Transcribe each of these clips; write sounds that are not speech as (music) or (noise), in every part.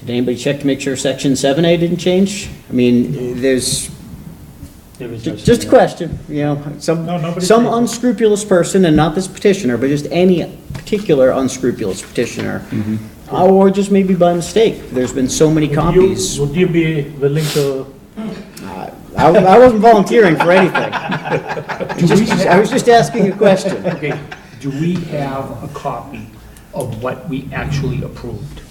Did anybody check to make sure section seven A didn't change? I mean, there's, There was no- just a question, you know, No, some, nobody some changed it. unscrupulous person, and not this petitioner, but just any particular unscrupulous petitioner. Or just maybe by mistake, there's been so many Would Mm-hmm. you- copies. Would you be willing to, I, I wasn't volunteering for (laughs) anything. Just- I was just asking a (laughs) question. Okay, do we have a copy of what we actually approved?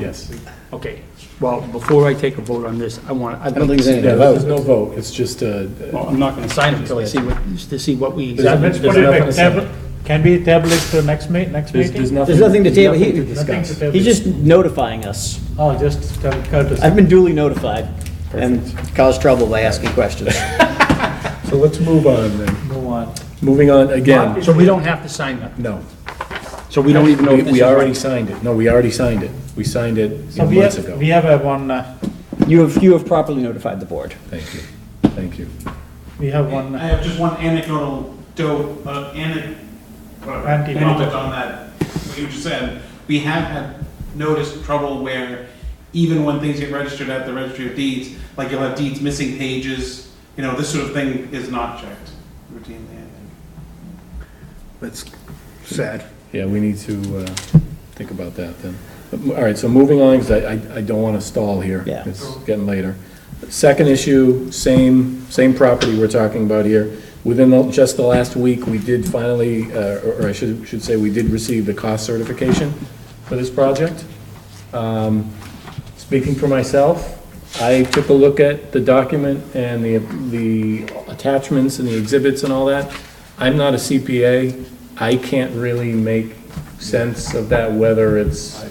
Yes. Okay, well, before I take a vote on this, I want, I'd I don't like think there's any to, Yeah, vote. there's no vote, it's just uh, a, well, I'm not gonna sign it until I see what, to see what we. There's let's There's put it nothing back, to say. table- can we table it to next ma, next there's, there's meeting? nothing. There's nothing to table. nothing He- Nothing to discuss. to table. He's just notifying us. Oh, just tell courtesy. I've been duly notified and caused trouble by asking questions. So let's move on then. Move on. Moving on again, So we don't have to sign that, no. so we don't even know We if this is we already right. signed it. No, we already signed it. We signed it you So know, we months have, ago. we have a one, uh, You have, you have properly notified the board. Thank you, thank you. we have one, I uh, have just one anecdotal do, uh, ane- whatever, Anecdote. anecdote on that, what you just said. We have had noticed trouble where even when things get registered at the registry of deeds, like you'll have deeds missing pages, you know, this sort of thing is not checked routinely, I think. That's sad. Yeah, we need to uh, think about that then. All right, so moving on, because I, I- I don't want to stall here. Yeah. It's getting later. Second issue, same, same property we're talking about here. Within the- just the last week, we did finally, uh, or or I should, should say, we did receive the cost certification for this project. Um, Speaking for myself, I took a look at the document and the, the attachments and the exhibits and all that. I'm not a CPA. I can't really make sense of that, whether it's.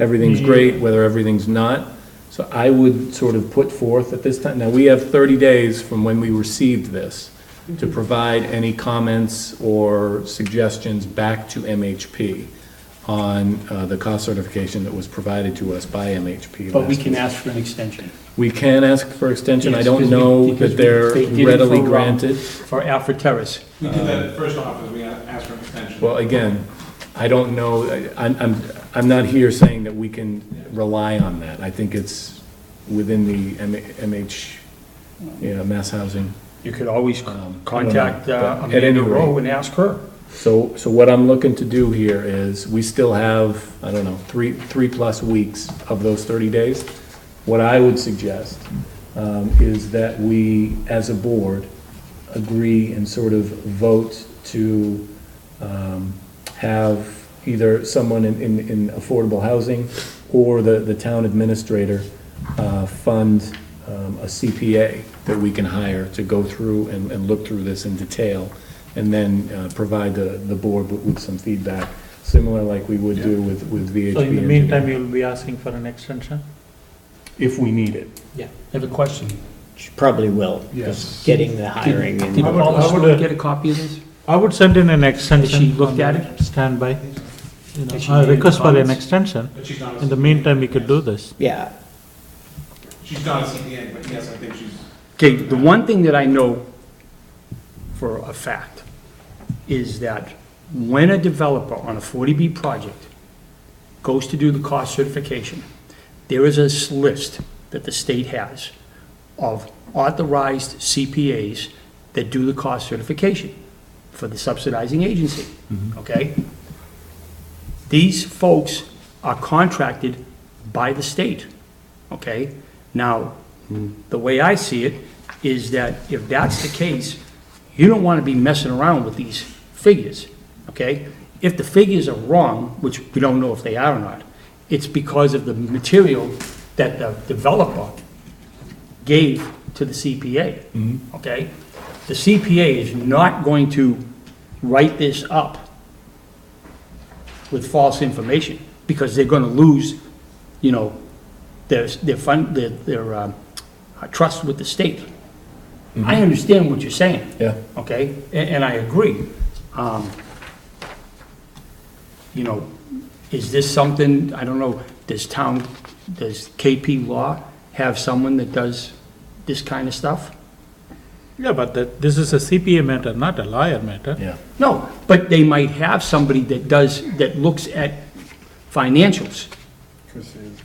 Everything's great, whether everything's not. So I would sort of put forth at this time, now, we have 30 days from when we received this to provide any comments or suggestions back to MHP on uh, the cost certification that was provided to us by MHP. But we last can week. ask for an extension. We can ask for extension. I Yes, don't because we- know because we- that they're they did it readily for, um, granted. For Alfred Terrace. We did that at first off, is we asked for an extension. Well, again, I don't know, I- I'm, I'm, I'm not here saying that we can rely on that. I think it's within the M- MH, you know, mass housing. You could always Um, contact I don't know, uh, but at any Amanda Rowe rate- and ask her. So, so what I'm looking to do here is, we still have, I don't know, three, three-plus weeks of those 30 days. What I would suggest um, is that we, as a board, agree and sort of vote to um, have either someone in, in in affordable housing or the, the town administrator uh, fund um, a CPA that we can hire to go through and, and look through this in detail, and then uh, provide the, the board with, with some feedback, similar like we would do with, with VHB. so in the engineering, meantime, you'll be asking for an extension? If we need it. Yeah. Have a question. She Probably will. Yes. Getting the hiring Did and, I would- Paula I would, Stewart uh, get a copy of this? I would send in an extension. Has she looked on at the Standby. You know, Has she I made any request for an comments? extension. But she's not a In the CPA. meantime, we could do this. yeah, She's not a CPA, but yes, I think she's. Okay, the one thing that I know for a fact is that when a developer on a 40B project goes to do the cost certification, there is a s- list that the state has of authorized CPAs that do the cost certification for the subsidizing agency, okay? These folks are contracted by the state, okay? Now, the way I see it is that if that's the case, you don't want to be messing around with these figures, okay? If the figures are wrong, which we don't know if they are or not, it's because of the material that the developer gave to the CPA, okay? The CPA is not going to write this up with false information, because they're gonna lose, you know, their, their fund, their, their, um, trust with the state. I understand what you're saying. Yeah. Okay, A- and I agree. Um, You know, is this something, I don't know, does town, does KP Law have someone that does this kind of stuff? Yeah, but that, this is a CPA matter, not a lawyer matter. Yeah. No, but they might have somebody that does, that looks at financials.